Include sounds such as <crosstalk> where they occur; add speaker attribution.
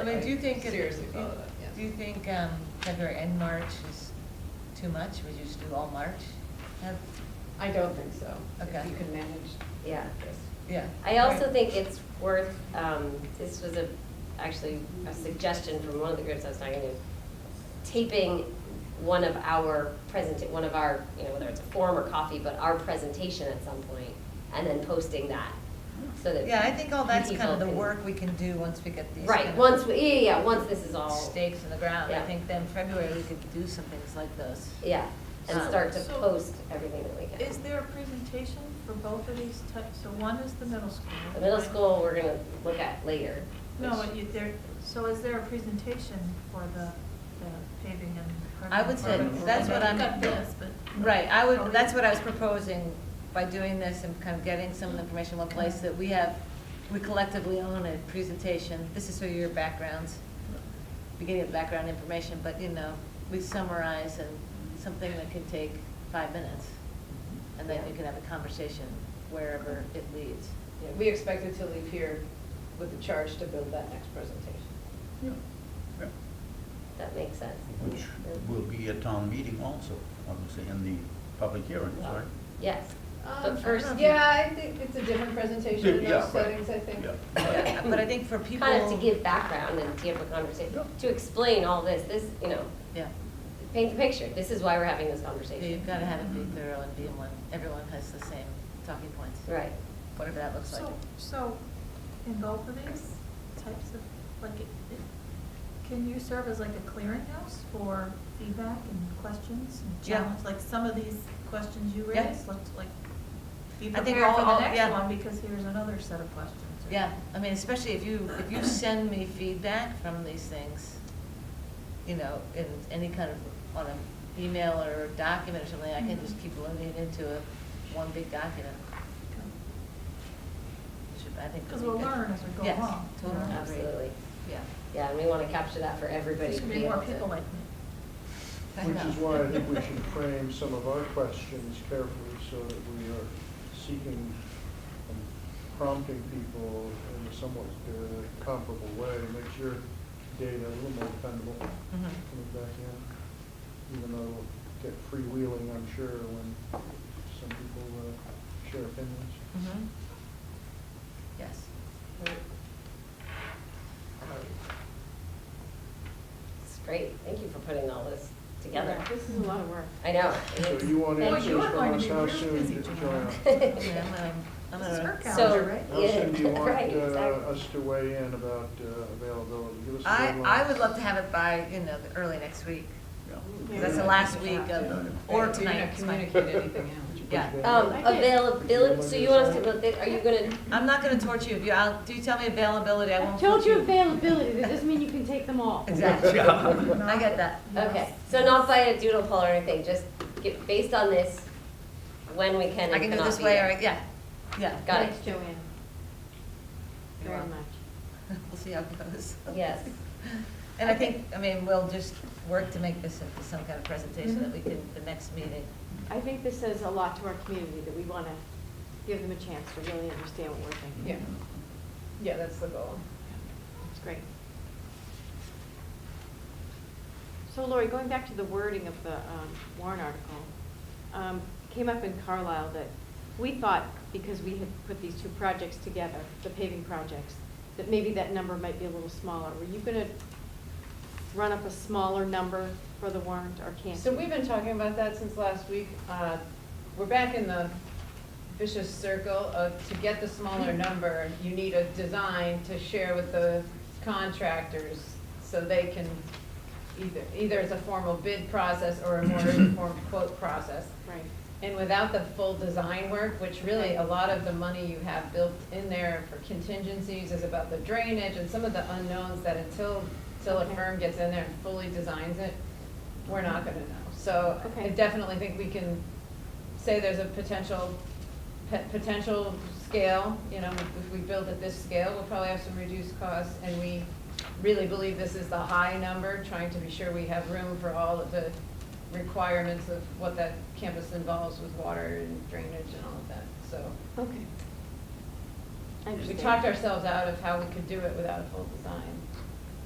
Speaker 1: I mean, do you think, it-
Speaker 2: Seriously follow that.
Speaker 1: do you think um, February and March is too much? Would you just do all March? Have-
Speaker 2: I don't think so. If
Speaker 1: Okay.
Speaker 2: You can manage.
Speaker 3: Yeah.
Speaker 2: this.
Speaker 1: Yeah.
Speaker 3: I also
Speaker 1: Right.
Speaker 3: think it's worth, um, this was a, actually a suggestion from one of the groups I was talking to, taping one of our present, one of our, you know, whether it's a forum or coffee, but our presentation at some point, and then posting that, so that.
Speaker 1: Yeah, I think all that's kind
Speaker 3: people
Speaker 1: of the
Speaker 3: can-
Speaker 1: work we can do once we get these. kind
Speaker 3: Right,
Speaker 1: of
Speaker 3: once, we- yeah, yeah, yeah, once this
Speaker 2: Oh.
Speaker 3: is all.
Speaker 1: Stakes in the ground. I
Speaker 3: Yeah.
Speaker 1: think then February, we could do some things like those.
Speaker 3: Yeah, and
Speaker 1: Um,
Speaker 3: start to
Speaker 4: so-
Speaker 3: post everything that we can.
Speaker 4: Is there a presentation for both of these types? So one is the middle school.
Speaker 3: The middle school, we're gonna look at later.
Speaker 4: No,
Speaker 3: which-
Speaker 4: and you, there, so is there a presentation for the, the paving and?
Speaker 1: I would say
Speaker 4: parking?
Speaker 1: that's what I'm-
Speaker 4: We've got this, but.
Speaker 1: Right, I
Speaker 4: Are we-
Speaker 1: would, that's what I was proposing by doing this and kind of getting some of the information in one place that we have, we collectively own a presentation. This is sort of your backgrounds, beginning of background information, but you know, we summarize and something that can take five minutes. And then you can have a conversation wherever it leads.
Speaker 2: Yeah, We expected to leave here with the charge to build that next presentation.
Speaker 5: Yeah, yeah.
Speaker 3: That makes sense.
Speaker 5: Which will be a town meeting also, obviously, in the public hearings,
Speaker 3: Well,
Speaker 5: right?
Speaker 3: Yes,
Speaker 2: Um, I
Speaker 3: but
Speaker 2: don't
Speaker 3: first.
Speaker 2: know if you- Yeah, I think it's a different presentation in
Speaker 5: Yeah,
Speaker 2: those
Speaker 5: right.
Speaker 2: settings, I think.
Speaker 5: Yeah.
Speaker 2: <laughs>
Speaker 1: But I
Speaker 3: <laughs>
Speaker 1: think for people.
Speaker 3: Kind of to give background and to have a conversation, to explain all this, this, you know,
Speaker 1: Yeah,
Speaker 3: paint the picture, this is why we're having this
Speaker 1: Yeah,
Speaker 3: conversation.
Speaker 1: you've got to have it be thorough and be in one, everyone has the same talking points,
Speaker 3: Right,
Speaker 1: whatever that looks like.
Speaker 4: So, so in both of these types of, like, it- it- can you serve as like a clearinghouse for feedback and questions and
Speaker 1: Yeah.
Speaker 4: challenge? Like some of these questions you
Speaker 1: Yeah.
Speaker 4: raised, looked like, be
Speaker 1: I think
Speaker 4: prepared for
Speaker 1: all-
Speaker 4: the
Speaker 1: all- yeah.
Speaker 4: next one because here's another set of questions. or-
Speaker 1: Yeah, I mean, especially if you, if you send me feedback from these things, you know, in any kind of, on an email or a document or something, I can just keep loading it into a, one big document. Should- I think.
Speaker 4: Because we'll learn as we go
Speaker 1: Yes,
Speaker 4: along. you know?
Speaker 1: totally.
Speaker 3: absolutely.
Speaker 1: Yeah.
Speaker 3: Yeah, and we want to capture that for everybody
Speaker 4: There
Speaker 3: to
Speaker 4: should
Speaker 3: be
Speaker 4: be
Speaker 3: able to.
Speaker 4: more people like me.
Speaker 1: I
Speaker 6: Which
Speaker 1: know.
Speaker 6: is why I think we should frame some of our questions carefully so that we are seeking and prompting people in a somewhat uh, comparable way to make your data a little more dependable
Speaker 1: Mhm.
Speaker 6: coming back in, even though we'll get freewheeling, I'm sure, when some people uh, share opinions.
Speaker 1: Mhm. Yes.
Speaker 3: Right. Um, It's great, thank you for putting all this together.
Speaker 2: This is a lot of work.
Speaker 3: I know.
Speaker 6: So you want
Speaker 3: Thank
Speaker 4: Well, you
Speaker 6: answers
Speaker 4: are
Speaker 6: from
Speaker 4: going
Speaker 6: us,
Speaker 4: to be
Speaker 6: how
Speaker 4: real busy
Speaker 6: soon,
Speaker 4: tomorrow.
Speaker 6: Joanne?
Speaker 1: Yeah,
Speaker 4: <laughs>
Speaker 1: I'm gonna, I'm
Speaker 4: This is her
Speaker 1: gonna,
Speaker 4: count.
Speaker 3: So,
Speaker 4: Calendar, right?
Speaker 6: How soon
Speaker 1: <laughs>
Speaker 3: <laughs>
Speaker 6: do you
Speaker 3: yeah,
Speaker 6: want
Speaker 3: right,
Speaker 6: uh,
Speaker 3: exactly.
Speaker 6: us to weigh in about uh, availability? Give us a
Speaker 1: I,
Speaker 6: deadline.
Speaker 1: I would love to have it by, you know, the early next week, 'cause that's the last week of, or
Speaker 2: Right, so you're
Speaker 1: tonight.
Speaker 2: not
Speaker 1: it's fine.
Speaker 2: communicating anything out.
Speaker 1: <laughs> Yeah.
Speaker 3: Um,
Speaker 4: I did.
Speaker 3: availability, so you want us to, go thi- are you gonna,
Speaker 1: I'm not gonna torture you, if you, I'll, do you tell me availability, I won't.
Speaker 7: I've told you
Speaker 1: torture
Speaker 7: availability, that doesn't mean you can take them all.
Speaker 1: Exactly,
Speaker 5: Yeah.
Speaker 1: I get that.
Speaker 3: okay, so not by a doodle poll or anything, just get, based on this, when we can
Speaker 1: I
Speaker 3: and
Speaker 1: can do
Speaker 3: cannot
Speaker 1: this
Speaker 3: be
Speaker 1: way,
Speaker 3: there.
Speaker 1: or, yeah, yeah.
Speaker 3: Got it,
Speaker 7: Thanks, Joanne. Very
Speaker 1: You're
Speaker 7: much.
Speaker 1: welcome. <laughs> We'll see how it goes.
Speaker 3: yes,
Speaker 1: <laughs> And I think, I mean, we'll just work to make this into some kind of presentation that we can, the next meeting.
Speaker 7: I think this says a lot to our community, that we want to give them a chance to really understand what we're thinking.
Speaker 2: Yeah, yeah, that's the goal.
Speaker 7: It's great. So Lori, going back to the wording of the um, Warren article, um, came up in Carlisle that we thought, because we had put these two projects together, the paving projects, that maybe that number might be a little smaller. Were you going to run up a smaller number for the warrant, or can't
Speaker 2: So
Speaker 7: you?
Speaker 2: we've been talking about that since last week. Uh, We're back in the vicious circle of, to get the smaller number, you need a design to share with the contractors so they can either, either it's a formal bid process or a more informed quote process.
Speaker 7: Right.
Speaker 2: And without the full design work, which really a lot of the money you have built in there for contingencies is about the drainage and some of the unknowns that until, till a
Speaker 7: Okay.
Speaker 2: firm gets in there and fully designs it, we're not gonna know. So I
Speaker 7: Okay.
Speaker 2: definitely think we can say there's a potential, pe- potential scale, you know, if we build at this scale, we'll probably have some reduced costs. And we really believe this is the high number, trying to be sure we have room for all of the requirements of what that campus involves with water and drainage and all of that. So
Speaker 7: Okay. I
Speaker 2: we
Speaker 7: understand.
Speaker 2: talked ourselves out of how we could do it without a full design.